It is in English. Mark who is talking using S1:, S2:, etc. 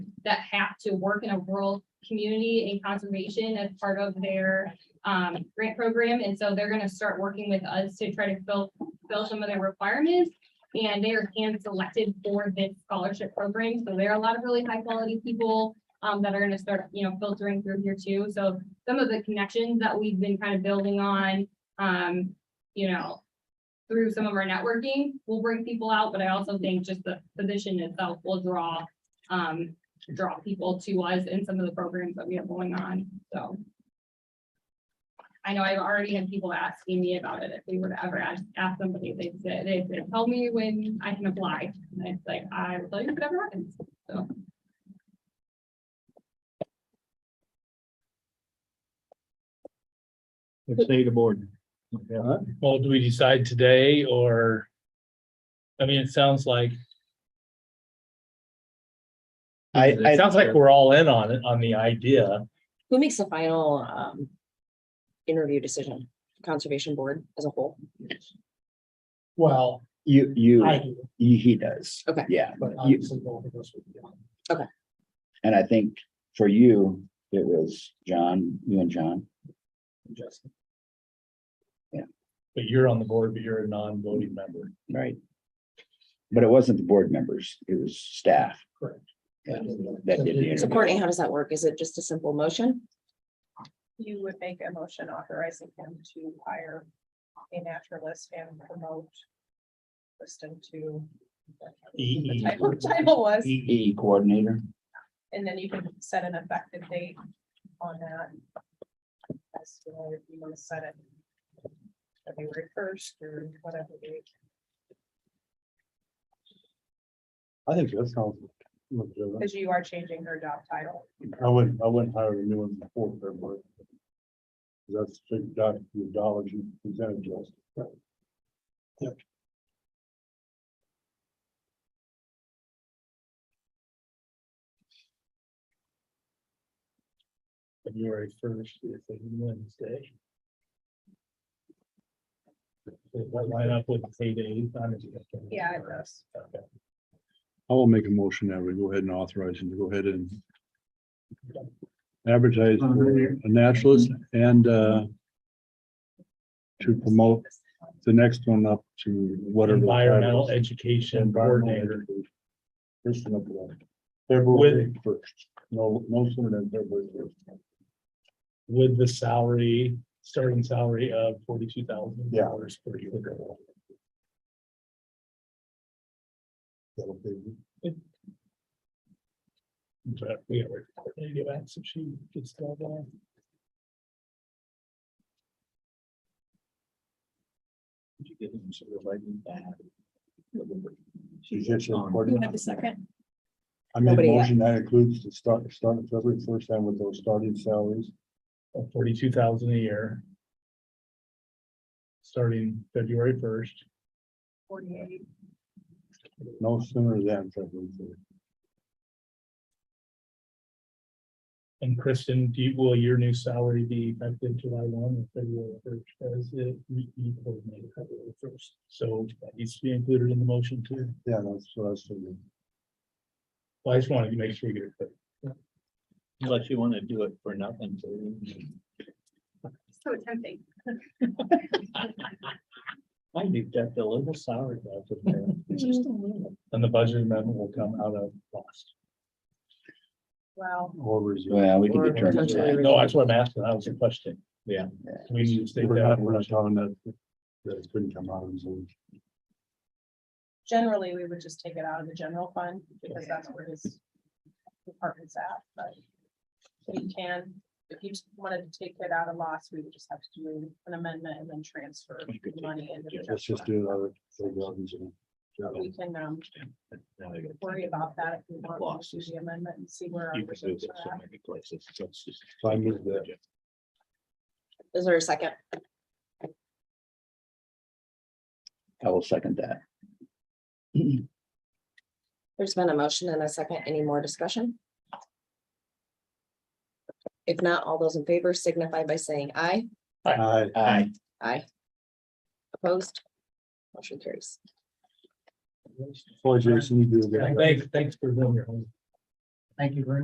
S1: that have to work in a rural community and conservation as part of their um, grant program. And so they're gonna start working with us to try to fill, fill some of their requirements. And they are hand selected for this scholarship program. So there are a lot of really high quality people um, that are gonna start, you know, filtering through here too. So some of the connections that we've been kind of building on, um, you know, through some of our networking, we'll bring people out, but I also think just the position itself will draw, um, draw people to us in some of the programs that we have going on, so. I know I've already had people asking me about it, if we were to ever ask, ask somebody, they said, they said, tell me when I can apply, and it's like, I will tell you whatever happens.
S2: Let's say the board. Yeah.
S3: Well, do we decide today or? I mean, it sounds like,
S4: I,
S3: it sounds like we're all in on it, on the idea.
S5: Who makes the final um interview decision? Conservation Board as a whole?
S6: Well,
S4: you, you,
S6: I do,
S4: he he does.
S5: Okay.
S4: Yeah,
S6: but
S4: you,
S6: obviously both of us would be on.
S4: and I think for you, it was John, you and John.
S6: Justin.
S3: But you're on the board, but you're a non-voting member.
S4: Right. But it wasn't the board members, it was staff.
S6: Correct.
S4: Yeah, That did the
S5: So
S4: interview.
S5: Courtney, how does that work? Is it just a simple motion?
S7: you would make a motion authorizing him to hire a naturalist and promote Kristen to
S3: EE.
S7: type of title
S3: E
S7: was,
S4: EE E coordinator.
S7: and then you can set an effective date on that. As to whether you want to set it February first or whatever date.
S2: I think that sounds. legitimate.
S7: because you are changing her job title.
S2: I wouldn't, I wouldn't hire a new one before February. That's the doc- the dollars you presented to us.
S3: February first, if they Wednesday. Does that line up with payday?
S7: Yeah, it does.
S3: Okay.
S2: I will make a motion that we go ahead and authorize him to go ahead and advertise for a naturalist and uh to promote the next one up to whatever. the title is.
S3: Environmental education coordinator.
S2: Person up there. February first, no, no sooner than February first.
S3: with the salary, starting salary of forty-two thousand dollars per year.
S2: That'll be-
S3: But we gotta wait for her to get back, so she gets that one.
S2: She gets it coordinated.
S7: second?
S2: I made a
S5: Nobody yet.
S2: motion that includes the start, start of February first and with those starting salaries.
S3: Of forty-two thousand a year. Starting February first.
S7: Forty-eight.
S2: No sooner than February first.
S3: And Kristen, do you, will your new salary be effective July one or February first as it you coordinated February first? So that needs to be included in the motion too.
S2: Yeah, that's what I was thinking.
S3: Well, I just wanted to make sure you get it. correct.
S8: Unless you want to do it for nothing. so-
S1: So tempting.
S8: I do get a little sour about it. It's just a little.
S3: And the budget amendment will come out of cost.
S7: Wow.
S2: Or resume.
S4: Well, we can
S5: Or
S4: determine
S5: potentially
S4: that.
S3: No, that's what I'm asking. That was the question.
S8: Yeah.
S3: We need to state
S2: We're not, we're not
S3: that.
S2: talking that, that it couldn't come out of Zoom.
S7: Generally, we would just take it out of the general fund because that's where his department's at, but we can, if you just wanted to take it out of loss, we would just have to do an amendment and then transfer
S4: We could
S7: the money into the
S2: Let's
S7: general
S2: just
S7: fund.
S2: do another. thing out of Zoom. Yeah.
S7: We can um
S8: Now I gotta
S7: worry about that if we want to
S8: Losses.
S7: do the amendment and see where. our
S8: You can do
S7: reserves
S8: this so
S7: are at.
S8: many places. so it's just-
S2: So I moved that.
S5: Is there a second?
S4: I will second that.
S5: There's been a motion and a second. Any more discussion? If not, all those in favor signify by saying aye.
S2: Aye.
S4: Aye.
S5: Aye. Opposed? Motion carries.
S2: Boy, Jason, you do a good.
S3: Thanks, thanks for doing your homework.
S6: Thank you very